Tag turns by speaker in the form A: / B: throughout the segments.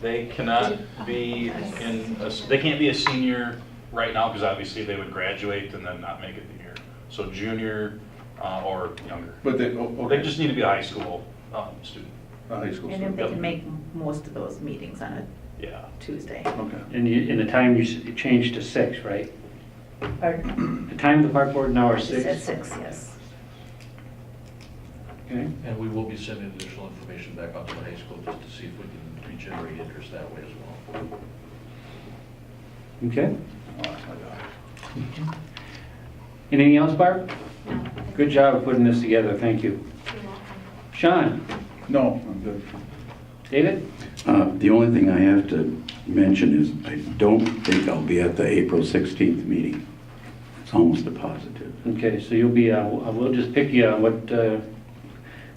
A: They cannot be in, a- they can't be a senior right now because obviously they would graduate and then not make it the year. So junior uh, or younger.
B: But they, oh, okay.
A: They just need to be a high school um, student,
B: A high school
C: And if
B: student.
C: they can make most of those meetings on a
A: yeah.
C: Tuesday.
B: Okay.
D: And you, and the time you s- you changed to six, right?
C: Pardon?
D: The time of the park board now are
C: It's At
D: six?
C: six, yes.
D: Okay,
E: And we will be sending additional information back out to the high school just to see if we can regenerate interest that way as well.
D: okay.
B: Oh, that's my God.
D: Anything else, Barb?
F: No.
D: Good job putting this together, thank you.
F: You're welcome.
D: Sean,
B: No, I'm good.
D: David?
G: Uh, The only thing I have to mention is I don't think I'll be at the April 16th meeting. It's almost a positive.
D: Okay, so you'll be, uh, we'll just pick you on what, uh,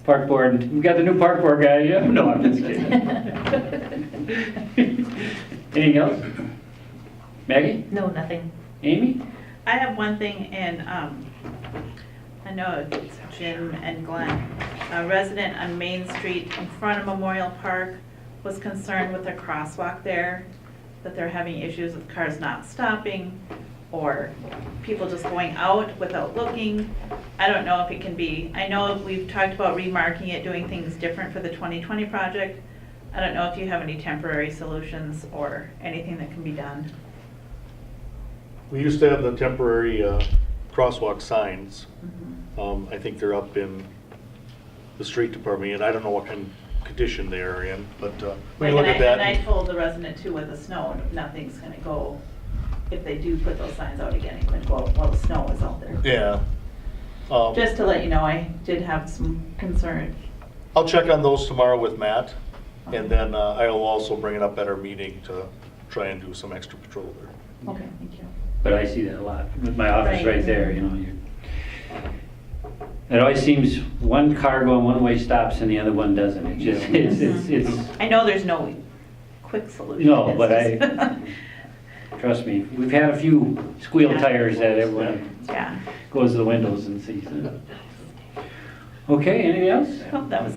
D: park board, we got the new park board guy, yeah? No, I'm just kidding. Anything else? Maggie?
C: No, nothing.
D: Amy?
H: I have one thing in, um, I know it's Jim and Glenn. A resident on Main Street in front of Memorial Park was concerned with a crosswalk there, that they're having issues with cars not stopping or people just going out without looking. I don't know if it can be, I know we've talked about remarking it, doing things different for the 2020 project. I don't know if you have any temporary solutions or anything that can be done.
I: We used to have the temporary uh, crosswalk signs. Um, I think they're up in the street department, and I don't know what kind of condition they are in, but uh, we can
H: Like,
I: look
H: and
I: at
H: I-
I: that.
H: And I told the resident too, with the snow, nothing's gonna go, if they do put those signs out again, it could go out while the snow is out there.
I: Yeah. Um,
H: Just to let you know, I did have some concern.
I: I'll check on those tomorrow with Matt, and then uh, I will also bring it up at our meeting to try and do some extra patrol there.
H: Okay, thank you.
D: But I see that a lot with my office
H: Right.
D: right there, you know. you- It always seems one car going one way stops and the other one doesn't. It just, it's, it's, it's,
H: I know there's no quick solution.
D: No, but
H: It's just-
D: trust me, we've had a few squeal
H: Yeah.
D: tires that everyone
H: Yeah,
D: goes to the windows and sees. it. Okay, anything else?
H: Well, that was